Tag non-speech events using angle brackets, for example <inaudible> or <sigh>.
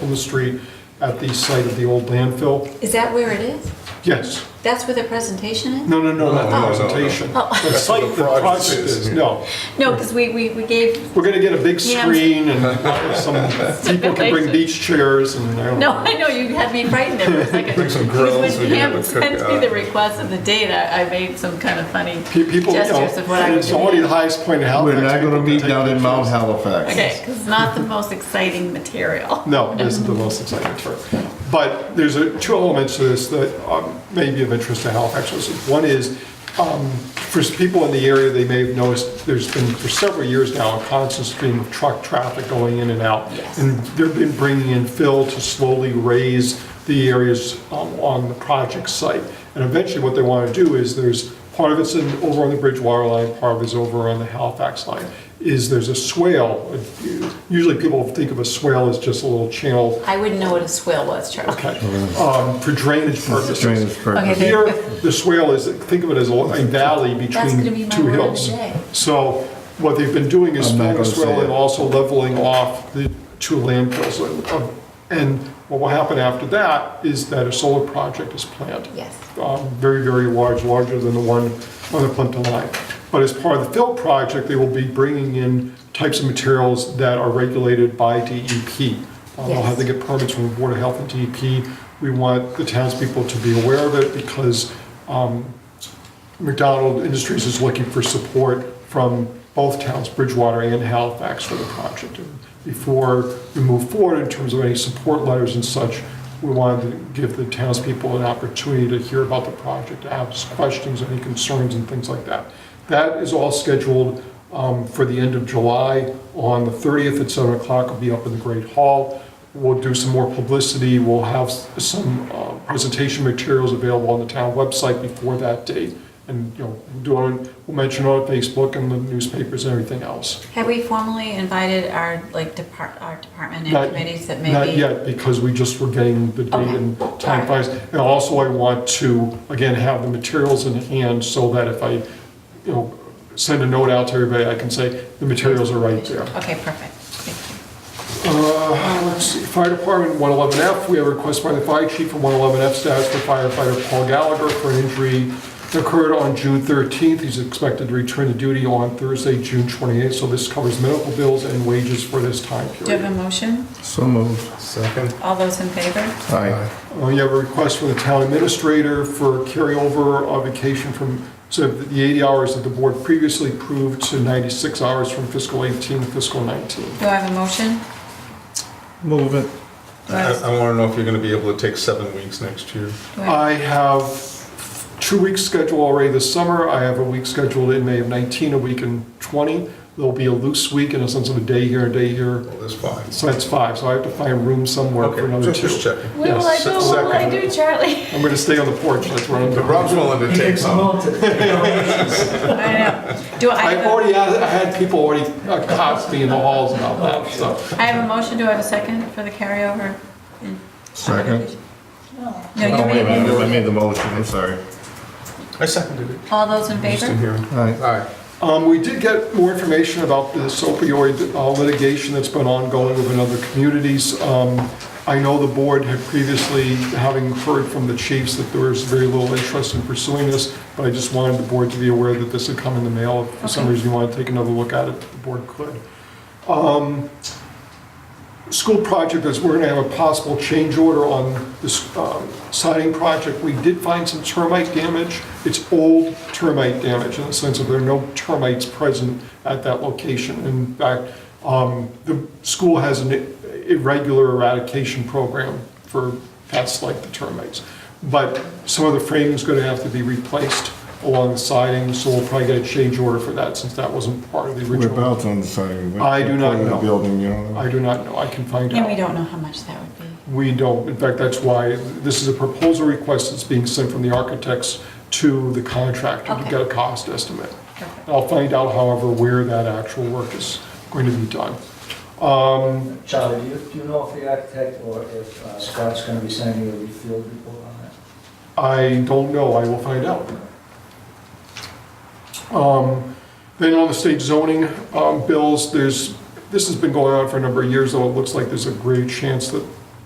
the street at the site of the old landfill. Is that where it is? Yes. That's where the presentation is? No, no, no, not No, no, no, the no. presentation. Oh. The site the project is, no. No, because we, we, we gave, We're going to get a big Yeah. screen and some people can bring beach chairs and I don't no, <laughs> know. I know, you had me frightened there for <laughs> a second. Bring some grills, we When can have Pam <laughs> a sent me cookout. the request of the date, I, I made some kind of funny Pe- People, you know, gestures of what I and would it's do. already the highest point in Halifax. We're not People gonna can meet take down in Mount pictures. Halifax. Okay, because it's not the most exciting material. No, it isn't the most exciting part. But there's a- two elements to this that um, may be of interest to Halifax residents. One is, um, for people in the area, they may have noticed, there's been for several years now, a constant stream of truck traffic going in and out. Yes. And they've been bringing in fill to slowly raise the areas um, on the project site. And eventually, what they want to do is, there's, part of it's in- over on the Bridgewater line, part of it's over on the Halifax line, is there's a swale. Usually, people think of a swale as just a little channel, I wouldn't know what a swill was, Charlie. okay, um, for drainage purposes. Drainage purpose. Okay. Here, the swale is, think of it as a a valley gonna be between my two word of hills. the day. So what they've been doing is I'm not filling the gonna say swale and it. also leveling off the two landfills. And- And what will happen after that is that a solar project is planned Yes. um, very, very large, larger than the one on the Plimpton line. But as part of the fill project, they will be bringing in types of materials that are regulated by DEP. Uh, They'll have to get permits from the Board of Health and DEP. We want the townspeople to be aware of it because um, McDonald Industries is looking for support from both towns, Bridgewater and Halifax, for the project. And Before we move forward in terms of any support letters and such, we wanted to give the townspeople an opportunity to hear about the project, to ask questions, any concerns and things like that. That is all scheduled um, for the end of July. On the 30th at 7 o'clock, it'll be up in the Great Hall. We'll do some more publicity, we'll have s- some uh, presentation materials available on the town website before that date. And, you know, we'll do it, on- we'll mention it on Facebook and the newspapers and everything else. Have we formally invited our, like, depart, our department and Not- committees that may Not be? yet, because we just were getting the date Okay. and time finalized. And also, I want to, again, have the materials in hand so that if I, you know, send a note out to everybody, I can say, the materials are right there. Okay, perfect. Thank you. Uh, Let's see, Fire Department, 111F, we have a request by the fire chief for 111F status for firefighter Paul Gallagher for an injury that occurred on June 13th. He's expected to return to duty on Thursday, June 28th, so this covers medical bills and wages for this time Do you have period. a motion? So moved. Second? All those in favor? Aye. Uh, You have a request from the town administrator for carryover of vacation from, so the 80 hours that the board previously approved to 96 hours from fiscal 18 to fiscal 19. Do I have a motion? Move it. Do I I, have- I wanna know if you're gonna be able to take seven weeks next year. do I- I have two weeks scheduled already this summer. I have a week scheduled in May of 19, a week in 20. There'll be a loose week in a sense of a day here, a day here. Well, that's fine. So that's five, so I have to find room somewhere for Okay, another just- just two. checking. What will I Yes, do? What will I second. do, Charlie? I'm going to stay on the porch, that's where I'm But going. Rob's willing to take some. I know. Do I I've have a- already, had- I had people already uh, caught me in the halls about that, so. I have a motion, do I have a second for the carryover? Second. No, Oh, you wait a made minute, it. I made the motion, I'm sorry. I seconded it. All those in Just in favor? here. Aye. Aye. Um, We did get more information about this opioid uh, litigation that's been ongoing within other communities. Um, I know the board had previously, having heard from the chiefs, that there was very little interest in pursuing this, but I just wanted the board to be aware that this had come in the mail. If for some Okay. reason you want to take another look at it, the board could. Um, School project is, we're going to have a possible change order on this um, siding project. We did find some termite damage. It's old termite damage in the sense of there are no termites present at that location. In fact, um, the school has an irregular eradication program for pests like the termites. But some of the framing's going to have to be replaced along the siding, so we'll probably get a change order for that since that wasn't part of the original. Whereabouts on the siding? What I do not part of the know. Building, you don't know? I do not know, I can find out. And we don't know how much that would be. We don't, in fact, that's why, this is a proposal request that's being sent from the architects to the contractor to Okay. get a cost estimate. Perfect. I'll find out, however, where that actual work is going to be done. Um, Charlie, do you, do you know if the architect or if uh, Scott's gonna be sending you a field report on that? I don't know, I will find out. Um, Then on the state zoning um, bills, there's, this has been going on for a number of years, though it looks like there's a great chance that